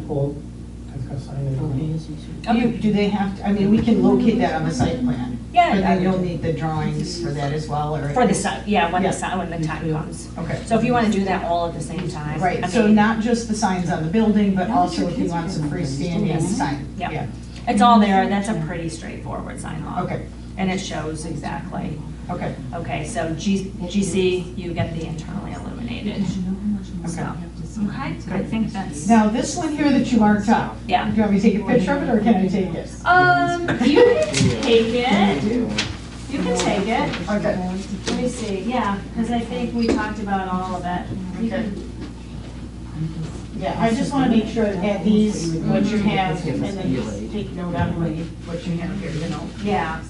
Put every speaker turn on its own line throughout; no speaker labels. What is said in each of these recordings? pull, that's got signage on it.
Do you-
Okay.
Do they have, to? I mean, we can locate that on the site plan.
Yeah,
But
I
then you'll
would.
need the drawings for that as well, or?
For the, si- yeah, when
Yeah.
the, si- when the time comes.
Okay.
So if you want to do that all at the same time. I
Right, so
mean,
not just the signs on the building, but
Now that
also
your
if you
kids
want
are
some
getting older, it's
freestanding
still
sign.
Yeah. It's all there, that's a pretty straightforward sign off.
Okay,
And it shows exactly.
okay,
Okay, so G- GC, you get the internally illuminated.
okay.
Okay, I think that's.
Now, this one here that you marked out.
Yeah.
Do you want me to take a picture of it, or can I take it?
Um, you can take it. You can take it.
Okay.
Let me see, yeah, because I think we talked about all of it. You can-
Yeah, I just want to make sure that these, what you have, and then just take note on what you- what you have here, you know?
Yeah,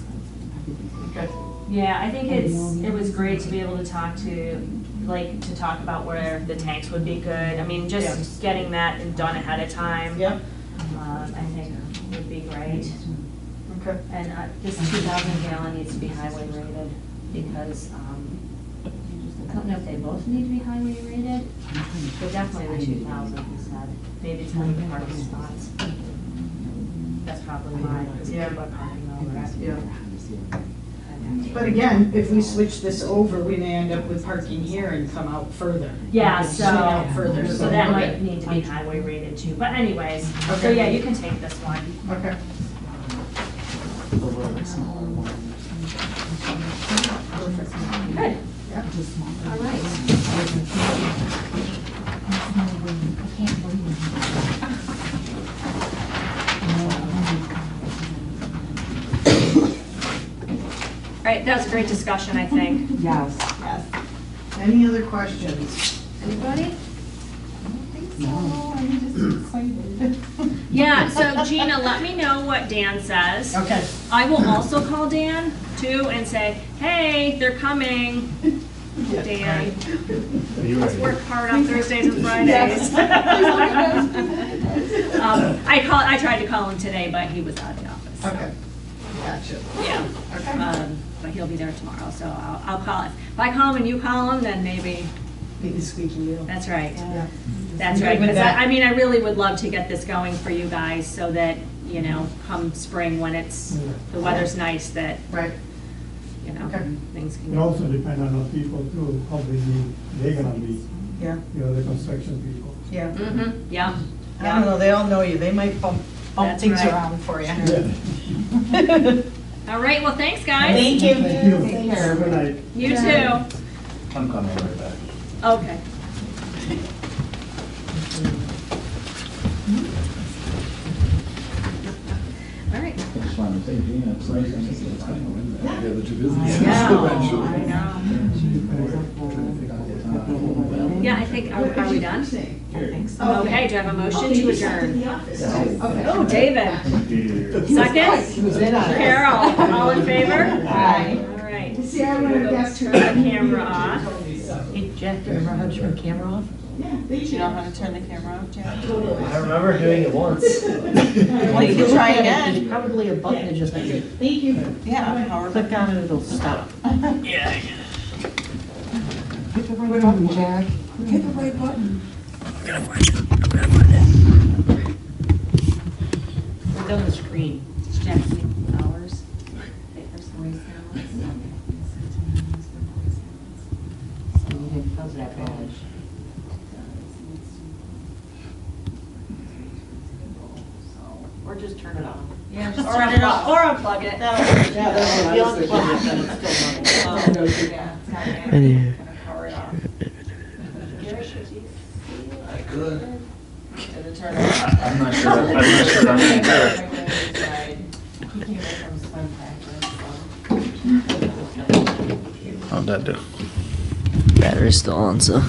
Okay.
yeah, I think it's, it was great to be able to talk to, like, to talk about where the tanks would be good. I mean, just getting that and done ahead of time.
Yep,
um, I think would be great.
okay.
And uh, this two thousand gallon needs to be highway rated because, um, I don't know if they both need to be highway rated, but definitely the two thousand is said. Maybe it's only the parking spots. That's probably mine, because
Yeah.
people are parking over at.
Yeah. But again, if we switch this over, we may end up with parking here and come out further.
Yeah,
Swing out
so,
Further.
so that
okay,
might need to be highway rated too, but anyways, so
Okay.
yeah, you can take this one.
Okay.
Good.
All
All right. All right, that was a great discussion, I think.
Yes.
Yes. Any other questions?
Anybody?
No, I'm just excited.
Yeah, so Gina, let me know what Dan says.
Okay.
I will also call Dan too and say, hey, they're coming. Dan,
Are you
let's
ready?
work hard on Thursdays and Fridays. Um, I call, I tried to call him today, but he was out of the office. so,
Okay. Gotcha.
Yeah,
Okay.
um, but he'll be there tomorrow, so I'll, I'll call him. If I call him and you call him, then maybe,
Big squeaky wheel.
that's right.
Yeah.
That's
I'm good
right,
with
because I,
that.
I mean, I really would love to get this going for you guys so that, you know, come spring when it's, the weather's nice, that,
Right.
you know,
Okay.
things can
It
go.
also depends on the people too, how busy they're gonna be,
Yeah,
you know, the construction people.
yeah.
Mhm, Yeah,
I don't know, they all know you. They might bump, bump
That's
things
right.
around for you.
all right, well, thanks, guys.
Thank you.
Thank you.
Take care.
Have a night.
You too.
I'm coming right back.
Okay. All right.
I just wanted to say, Gina, it's nice. I'm thinking it's kind of windy.
Yeah, the two businesses.
No, I know. Yeah, I think, are are we done? Okay, do I have a motion to adjourn? Oh, David, second? Carol, all in favor?
Aye.
All right.
See, I would have guessed
Turn
her.
the camera off.
Jack, do you remember how to turn the camera off?
You know how to turn the camera off, Jack?
I remember doing it once.
Well, you can try again.
There's Probably a button that just,
Thank you.
Yeah.
click on it, it'll stop.
Hit the right button, Jack. Hit the right button.
Click on the screen.
Jackie Flowers. Papers, Maurice Allen.
How's that going? Or just turn it off.
Yeah, just turn it off, or unplug it.
You unplug it, then it's still running.
I could. I'm not sure, I'm not sure I'm gonna do it.
How'd that do? Battery's still on, so.